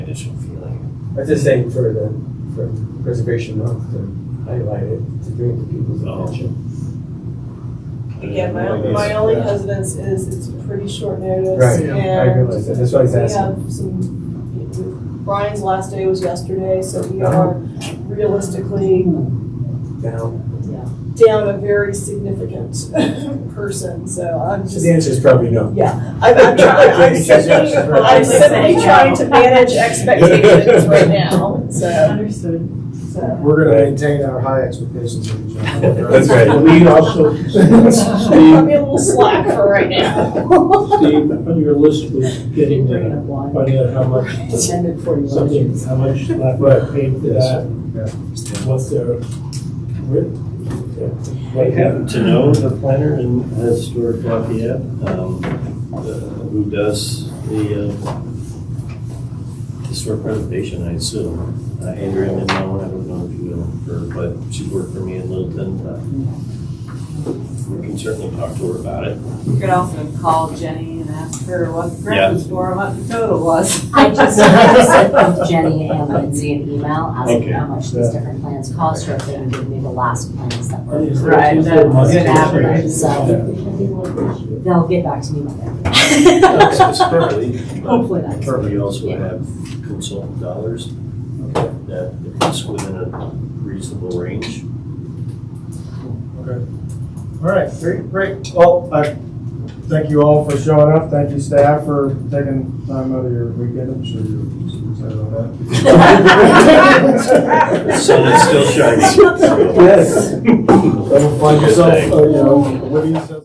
initial feeling. I was just saying for the, for preservation month, to highlight it, to bring it to people's Oh. attention. Again, my, Like this. my only Yeah. hesitance is it's pretty short notice. Right, I And realize that, that's what I was we asking. have some, Brian's last day was yesterday, so we Uh-huh. are realistically Now, down a very significant person, so I'm so just, the answer is probably no. yeah. I'm, I'm trying, I'm simply, I'm simply trying to manage expectations right now, so, Understood. so. We're gonna maintain our high expectations of each other. That's right. Lean also, Cut me a little slack for right now. Steve, on your list was getting, Bringing uh, up wine. finding out how much, Intended for you. something, how much Blackrock paid for that, what their, what I happen to know the planner in historic Lafayette, um, uh, who does the, uh, historic preservation, I assume. Uh, Andrea Minow, I don't know if you know her, but she worked for me in Littleton. uh, We can certainly talk to her about it. You could also call Jenny and ask her what the grocery store amount the total was. I just sent Jenny and Lindsay an email asking Okay. how much these different plans cost, or if they would give me the last plans that were. Right, that's an average. So they'll get back to me Monday. Hopefully. Hopefully that's. Probably also have consultant dollars that if it's within a reasonable range. All right, great, great. Well, I thank you all for showing up. Thank you staff for taking time out of your weekend. I'm sure you're excited about The that. sun is still shining. Yes. Don't find yourself, uh, you know, what do you say?